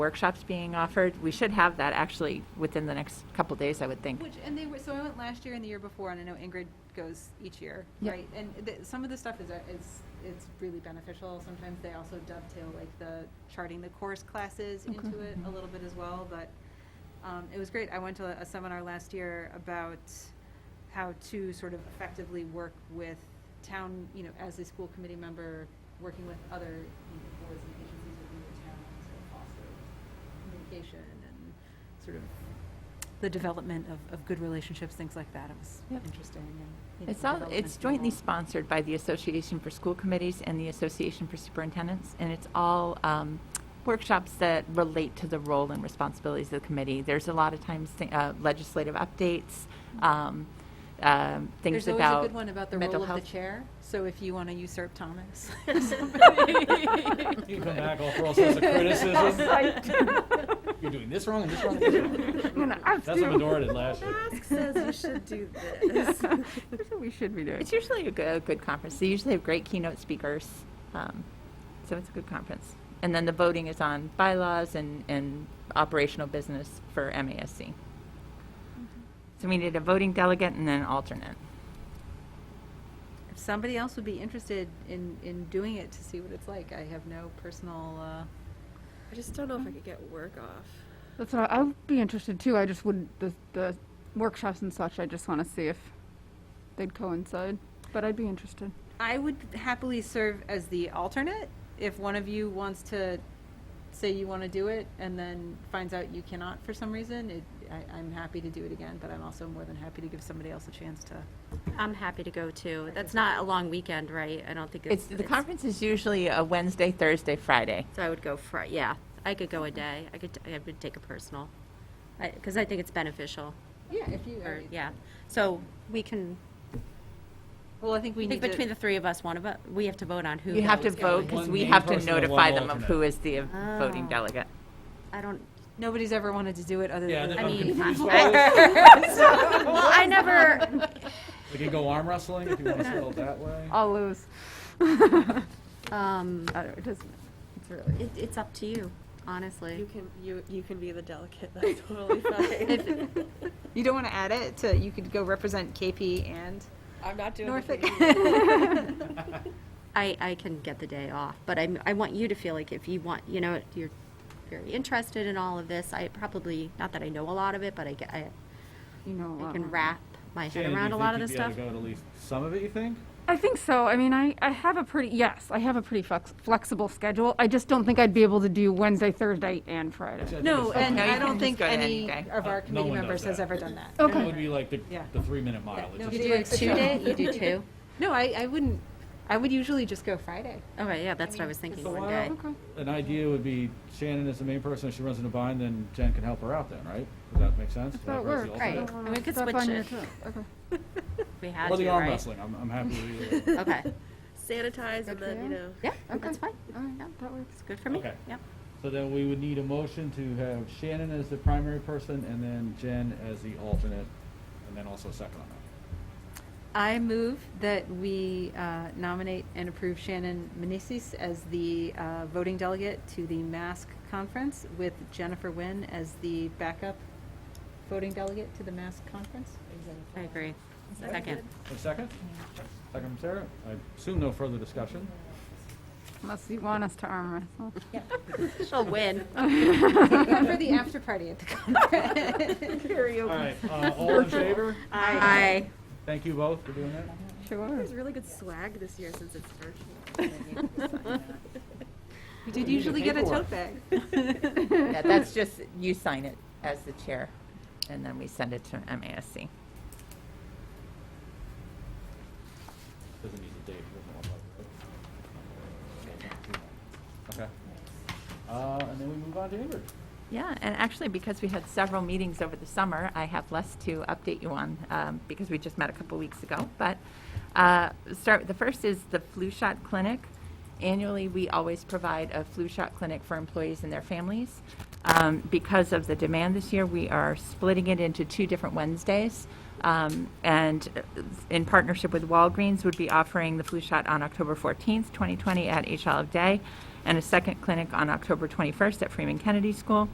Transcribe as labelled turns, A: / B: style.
A: workshops being offered. We should have that actually within the next couple days, I would think.
B: Which, and they were, so I went last year and the year before, and I know Ingrid goes each year,
A: Yeah.
B: right? And th- some of the stuff is, a- is, it's really beneficial. Sometimes they also dovetail like the charting the course classes into it a little bit as well, but um, it was great. I went to a- a seminar last year about how to sort of effectively work with town, you know, as a school committee member, working with other, you know, boards and agencies within the town to foster communication and sort of the development of, of good relationships, things like that. It was
A: Yep.
B: interesting. And, you know,
A: It's all,
B: development
A: it's
B: in
A: jointly
B: all.
A: sponsored by the Association for School Committees and the Association for Superintendents, and it's all um, workshops that relate to the role and responsibilities of the committee. There's a lot of times thi- uh, legislative updates, um, um, things
B: There's always a
A: about
B: good one about the
A: mental
B: role of the
A: health.
B: chair. So if you want to usurp Thomas.
C: You come back, all for all sorts of criticism. You're doing this wrong and this wrong and this wrong. That's what Medora did last year.
D: says you should do this.
A: we should be doing. It's usually a good, a good conference. They usually have great keynote speakers, um, so it's a good conference. And then the voting is on bylaws and, and operational business for MASC. So we need a voting delegate and then an alternate.
B: If somebody else would be interested in, in doing it to see what it's like, I have no personal, uh,
D: I just don't know if I could get work off.
E: That's what I, I would be interested too. I just wouldn't the the workshops and such. I just want to see if they'd coincide. But I'd be interested.
B: I would happily serve as the alternate if one of you wants to say you want to do it and then finds out you cannot for some reason. It, I, I'm happy to do it again, but I'm also more than happy to give somebody else a chance to.
F: I'm happy to go too. That's not a long weekend, right? I don't think
A: It's,
F: it's.
A: the conference is usually a Wednesday, Thursday, Friday.
F: So I would go for, yeah, I could go a day. I could, I would take a personal. I, because I think it's beneficial,
B: Yeah, if you.
F: or, yeah. So we can,
B: Well, I think we
F: I
B: need
F: think between
B: to.
F: the three of us, one of us, we have to vote on who.
A: You have to
F: votes going.
A: vote because
C: One
A: we
C: main
A: have to
C: person and one
A: notify them of
C: alternate.
A: who is the uh, voting
F: Ah.
A: delegate.
F: I don't,
B: Nobody's ever wanted to do it other
C: Yeah,
B: than.
C: and if
F: I
C: I'm
F: mean-
C: confused,
F: well, I never,
C: we can go arm wrestling if you want to spell it that way.
E: I'll lose.
F: um,
E: I don't, it doesn't. It's really.
F: it, it's up to you, honestly.
D: You can you you can be the delegate. That's totally fine.
B: You don't want to add it to, you could go represent KP and
D: I'm not doing
B: Norfolk.
D: anything.
F: I, I can get the day off, but I, I want you to feel like if you want, you know, you're very interested in all of this. I probably, not that I know a lot of it, but I get, I,
E: You know. uh, a
F: I
E: lot
F: can
E: more.
F: wrap my
C: Shane, do
F: head
C: you
F: around a
C: think
F: lot of
C: you'd
F: this
C: be able
F: stuff.
C: to go to at least some of it, you think?
E: I think so. I mean, I, I have a pretty yes. I have a pretty flex, flexible schedule. I just don't think I'd be able to do Wednesday, Thursday, and Friday.
C: Which I think
B: No,
C: is fine.
B: and
A: No, you
B: I
A: can
B: don't
A: just
B: think
A: go to
B: any
A: any day.
B: of
C: Uh, no
B: our committee
C: one does
B: members has
C: that.
B: ever done that.
C: It
E: Okay.
C: would be like the,
B: Yeah.
C: the three minute mile. It
B: no,
C: just-
B: you
F: You do a
B: It's a
F: two
B: job.
F: day, you do two?
B: No, I, I wouldn't, I would usually just go Friday.
F: Okay, yeah, that's what I was thinking,
C: So
F: one
C: why
F: day.
C: don't- An idea would be Shannon is the main person, if she runs into a bind, then Jen can help her out then, right? Does that make sense?
E: That's how it
C: Have her as the
E: works.
F: Right,
C: alternate?
F: and we could
E: That's
F: switch
E: on your
F: it.
E: turn. Okay.
F: We had
C: Or the
F: to,
C: arm
F: right?
C: wrestling, I'm, I'm happy with either.
F: Okay,
D: Sanitize
E: Good
D: and
E: for
D: then you
E: you.
D: know.
F: yeah,
E: Okay.
F: that's fine,
E: All right. That works.
F: it's good for me,
C: Okay.
F: yep.
C: So then we would need a motion to have Shannon as the primary person and then Jen as the alternate, and then also second on that.
B: I move that we uh, nominate and approve Shannon Meneses as the uh, voting delegate to the Mask Conference with Jennifer Nguyen as the backup voting delegate to the Mask Conference.
F: I agree. Second,
C: A second? Second from Sarah? I assume no further discussion.
E: Unless you want us to arm wrestle.
F: she'll win.
B: Except for the after party at the conference.
C: All right, uh, all in favor?
F: Aye.
C: Thank you both for doing that.
E: Sure.
D: There's really good swag this year since it's virtual.
B: We did usually get a tote bag.
A: Yeah, that's just, you sign it as the chair, and then we send it to MASC.
C: Doesn't need a date. doesn't want that, right? Okay. Uh, and then we move on to Ingrid.
A: Yeah, and actually, because we had several meetings over the summer, I have less to update you on um, because we just met a couple weeks ago. But uh, start, the first is the flu shot clinic. Annually, we always provide a flu shot clinic for employees and their families. Um, Because of the demand this year, we are splitting it into two different Wednesdays. Um, And uh, in partnership with Walgreens, would be offering the flu shot on October 14th, 2020 at H Olive Day. and a second clinic on October 21st at Freeman Kennedy School.